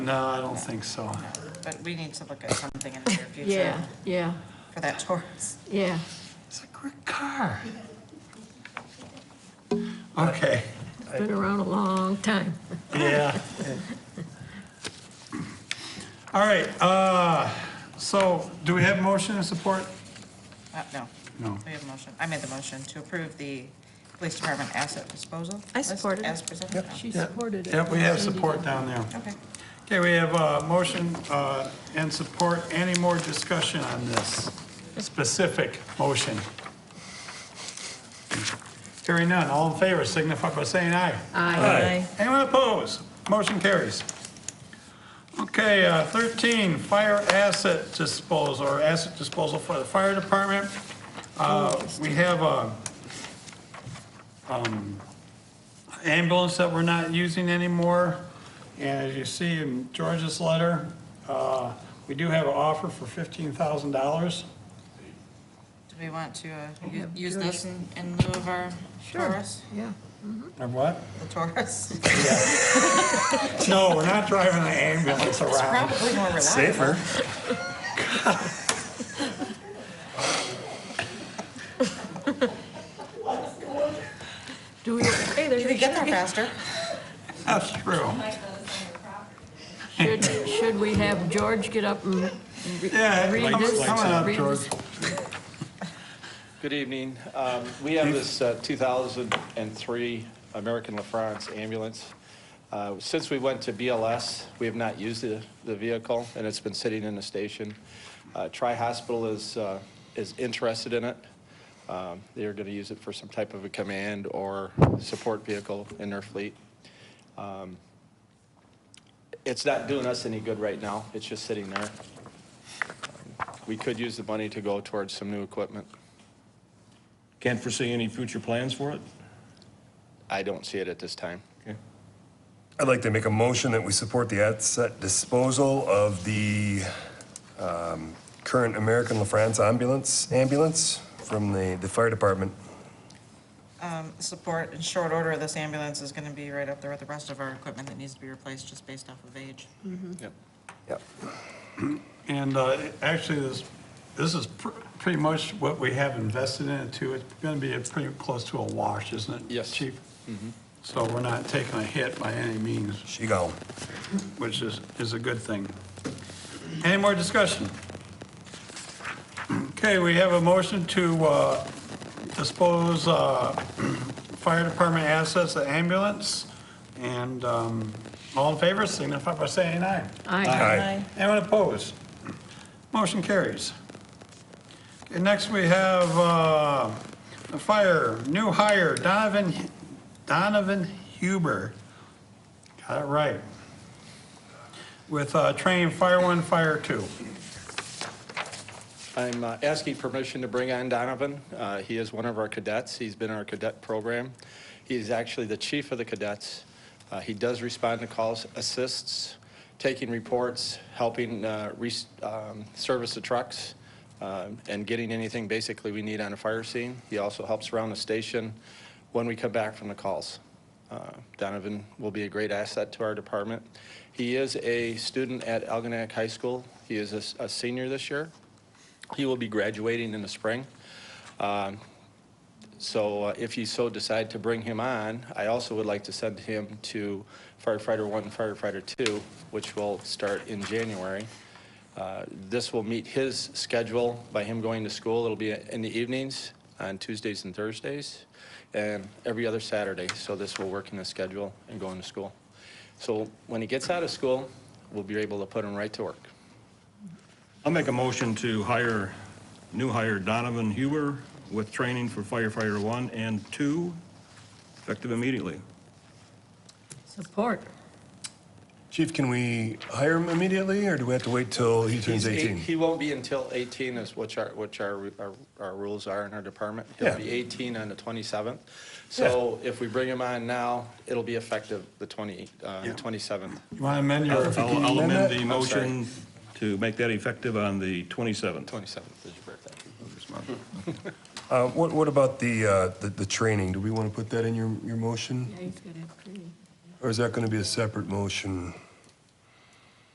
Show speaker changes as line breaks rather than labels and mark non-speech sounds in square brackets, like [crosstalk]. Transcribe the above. No, I don't think so.
But we need to look at something in the near future
Yeah, yeah,
for that Taurus.
yeah.
It's a great car. Okay,
It's Been around a long time.
yeah. All right, uh, so do we have motion and support?
Uh, No.
No.
We have a motion. I made the motion to approve the police department asset disposal.
I
list
support it.
As presented.
Yep.
She
Yeah.
supported it.
Yeah, we have
Sandy
support
did.
down there.
Okay.
Okay, we have a motion uh, and support. Any more discussion on this specific motion? Hearing none, all in favor signify by saying aye.
Aye.
Anyone opposed? Motion carries. Okay, uh, 13, fire asset disposal, or asset disposal for the fire department. Uh, We have a um, ambulance that we're not using anymore, and as you see in George's letter, uh, we do have an offer for $15,000.
Do we want to uh, u- use this in in lieu of our Taurus?
Yeah.
Or what?
The
[laughs]
Taurus?
No, we're not driving the ambulance around.
Probably more reliable.
Safer.
Do we,
You
hey,
could
there's,
get there faster.
That's true.
should, should we have George get up and re-
Yeah,
read
come
this?
come on up,
read
George.
this?
Good evening. Um, We have this uh, 2003 American LaFrance ambulance. Uh, Since we went to BLS, we have not used the the vehicle, and it's been sitting in the station. Uh, Tri-Hospital is uh, is interested in it. Um, They're going to use it for some type of a command or support vehicle in their fleet. Um, It's not doing us any good right now. It's just sitting there. We could use the money to go towards some new equipment.
Can't foresee any future plans for it?
I don't see it at this time.
I'd like to make a motion that we support the asset disposal of the um, current American LaFrance ambulance, ambulance from the, the fire department.
Um, Support in short order, this ambulance is going to be right up there with the rest of our equipment that needs to be replaced just based off of age.
Yep.
Yep.
And uh, actually, this, this is pr- pretty much what we have invested in it too. It's going to be a pretty close to a wash, isn't it?
Yes.
Chief? So we're not taking a hit by any means,
She gone.
which is, is a good thing. Any more discussion? Okay, we have a motion to uh, dispose uh, [clears throat] fire department assets, the ambulance, and um, all in favor, signify by saying aye.
Aye.
Aye.
Anyone opposed? Motion carries. Okay, next we have, uh, the fire, new hire, Donovan, Donovan Huber. Got it right. With, uh, train Fire One, Fire Two.
I'm uh, asking permission to bring on Donovan. Uh, He is one of our cadets. He's been in our cadet program. He is actually the chief of the cadets. Uh, He does respond to calls, assists, taking reports, helping uh, re- um, service the trucks, uh, and getting anything basically we need on a fire scene. He also helps around the station when we come back from the calls. Uh, Donovan will be a great asset to our department. He is a student at Algonac High School. He is a s- a senior this year. He will be graduating in the spring. Um, So uh, if you so decide to bring him on, I also would like to send him to firefighter one and firefighter two, which will start in January. Uh, This will meet his schedule by him going to school. It'll be in the evenings on Tuesdays and Thursdays and every other Saturday. So this will work in his schedule and going to school. So when he gets out of school, we'll be able to put him right to work.
I'll make a motion to hire, new hire Donovan Huber with training for firefighter one and two, effective immediately.
Support.
Chief, can we hire him immediately or do we have to wait till he turns
He's eight-
18?
He won't be until 18 is which our, which our, our- our rules are in our department. He'll
Yeah.
be 18 on the 27th. So if we bring him on now, it'll be effective the 20, uh,
Yeah.
27th.
You want to amend your?
I'll I'll amend the
I'm sorry.
motion to make that effective on the 27th.
27th is your birthday.
Uh, what, what about the, uh, the, the training? Do we want to put that in your, your motion?
Yeah, he's got it.
Or is that going to be a separate motion?